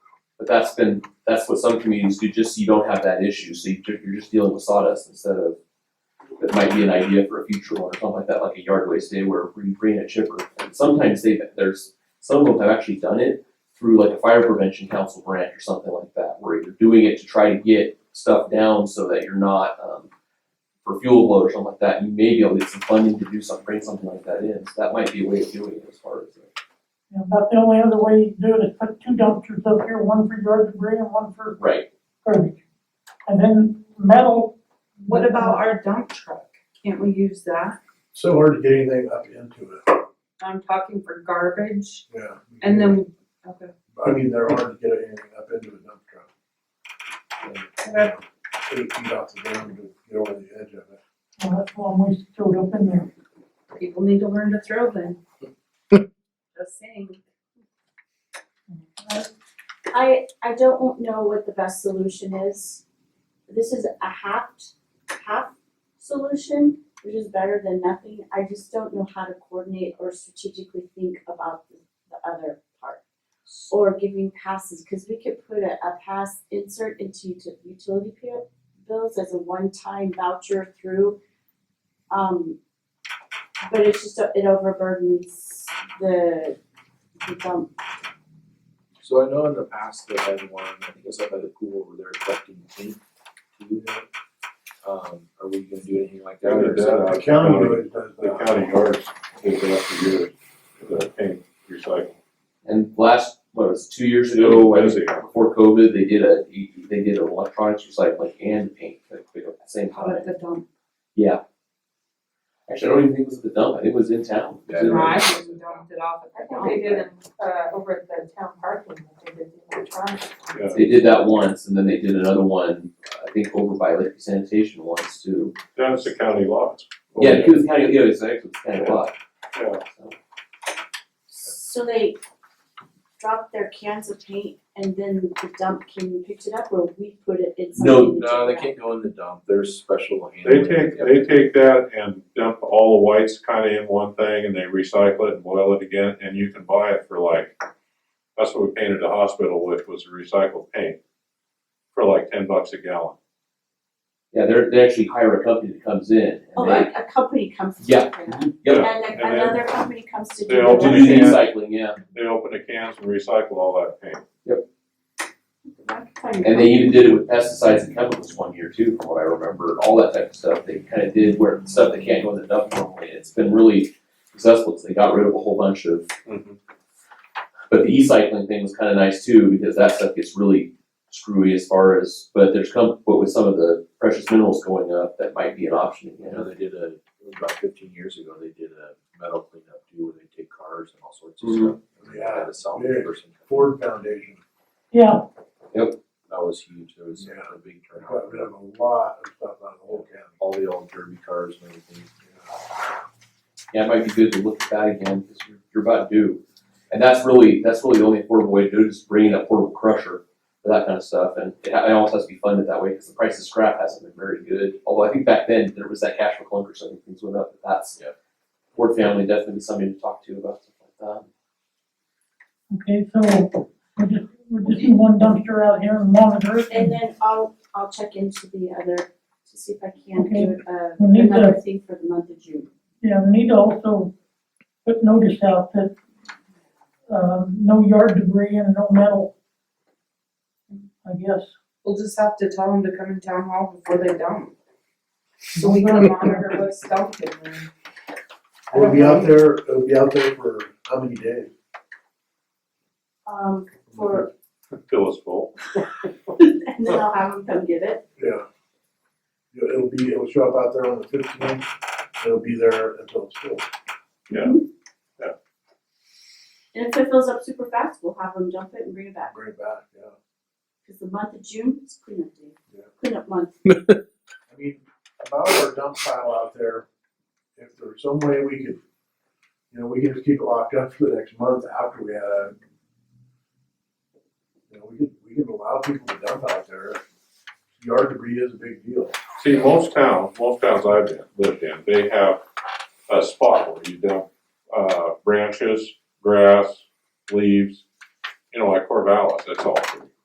But that's been, that's what some communities do, just so you don't have that issue, so you, you're just dealing with sawdust instead of, that might be an idea for a future one or something like that, like a yard waste day where we bring in a chipper. And sometimes they, there's, some of them have actually done it through like a fire prevention council branch or something like that, where you're doing it to try to get stuff down so that you're not, um, for fuel load or something like that, you may be able to get some funding to do something, bring something like that in, so that might be a way of doing it as far as. uh, You know, About the only other way you can do it is put two dumpsters up here, one for yard debris and one for Right, garbage. And then metal. What about our dump truck? Can't we use that? So hard to get anything up into it, I'm talking for garbage yeah. and then, okay, I mean, they're hard to get anything up into a dump truck. And, you know, Eight feet off the ground to get over the edge of it. Well, that's one way to throw it up in there. people need to learn to throw then. Just saying. I, I don't know what the best solution is. This is a half, half solution, which is better than nothing. I just don't know how to coordinate or strategically think about the, the other part. Or giving passes, cause we could put a, a pass insert into uti- utility pa- bills as a one-time voucher through. Um, but it's just, it overburdens the, the dump So I know in the past they had one, I think it was up by the pool where they're collecting paint to do that. Um, are we gonna do anything like that? They or did is that that- The county really does The that. county yards, they have to do the paint recycling. And last, what was it, two years ago, I That was is it. before COVID, they did a, they did an electronics recycling and paint, like, like at the same How about time. the dump? Yeah. Actually, I don't even think it was at the dump, I think it was in town. It was in- I just dumped it off I at the think dump. they did in, uh, over at the town parking, I think they did the electronics. Yeah. They did that once, and then they did another one, I think over by Lake Sanitation once too. That's the county lots. Yeah, it was kind of, yeah, it was actually kind of a lot. Yeah. So, So they dropped their cans of paint and then the dump came and picked it up or we put it in No, something? to No, they take out? can't go in the dump, there's special They handling. take, they take that and dump all the whites kind of in one thing and they recycle it and boil it again and you can buy it for like, that's what we painted the hospital with was recycled paint for like ten bucks a gallon. Yeah, they're, they actually hire a company that comes in Oh, and they, a, a company comes to Yeah. do that. yeah, And then and then- another company comes to do Oh, the They'll to do one. do the Yeah. recycling, yeah. They open the cans and recycle all that paint. I can find And they even did it with pesticides and chemicals one year too, from what I remember, all that type of stuff, they kinda did where stuff that can't go in the dump normally, it's been really successful, cause they got rid of a whole bunch of, but the e-cycling thing was kinda nice too, because that stuff gets really screwy as far as, but there's come, but with some of the precious minerals going up, that might be an option, you You know, know? they did a, it was about fifteen years ago, they did a metal cleanup too, where they take cars and all sorts of stuff. Mhm. and they Had a Mm-hmm. Yeah. solid person, Ford Foundation, Yeah, that was huge, there was Yeah. a big got rid turnout, of a lot of stuff out of the whole county. all the old derby cars and everything. Yeah, it might be good to look at that again, cause you're, you're about due. And that's really, that's really the only affordable way to do it, is bringing that portable crusher for that kind of stuff, and it, it also has to be funded that way, cause the price of scrap hasn't been very good. Although I think back then, there was that cash for clunkers, so I think things went up, but that's. Yeah. Ford family definitely somebody to talk to about stuff like that. okay, so we're just, we're just in one dumpster out here and monitor it. And then I'll, I'll check into the other to see if I can Okay. do uh We need another thing for the month of June. Yeah, we need to also put notice out that, um, no yard debris and no metal. I guess. We'll just have to tell them to come in town hall before they dump. So we can monitor what's dumped in there. It'll be out there, it'll be out there for how many days? Um, for, Till it's full. and then I'll have them come get it. Yeah. Yeah, It'll be, it'll show up out there on the fifteenth, it'll be there until it's full. And if it fills up super fast, we'll have them dump it and bring it back. bring it back, yeah. Cause the month of June is cleanup day, Yeah. cleanup month. I mean, about our dump pile out there, if there's some way we could, you know, we could just keep it locked up for the next month after we had a. You know, we could, we could allow people to dump out there, yard debris is a big deal. See, most towns, most towns I've been- lived in, they have a spot where you dump, uh, branches, grass, leaves, you know, like Corvallis, that's all.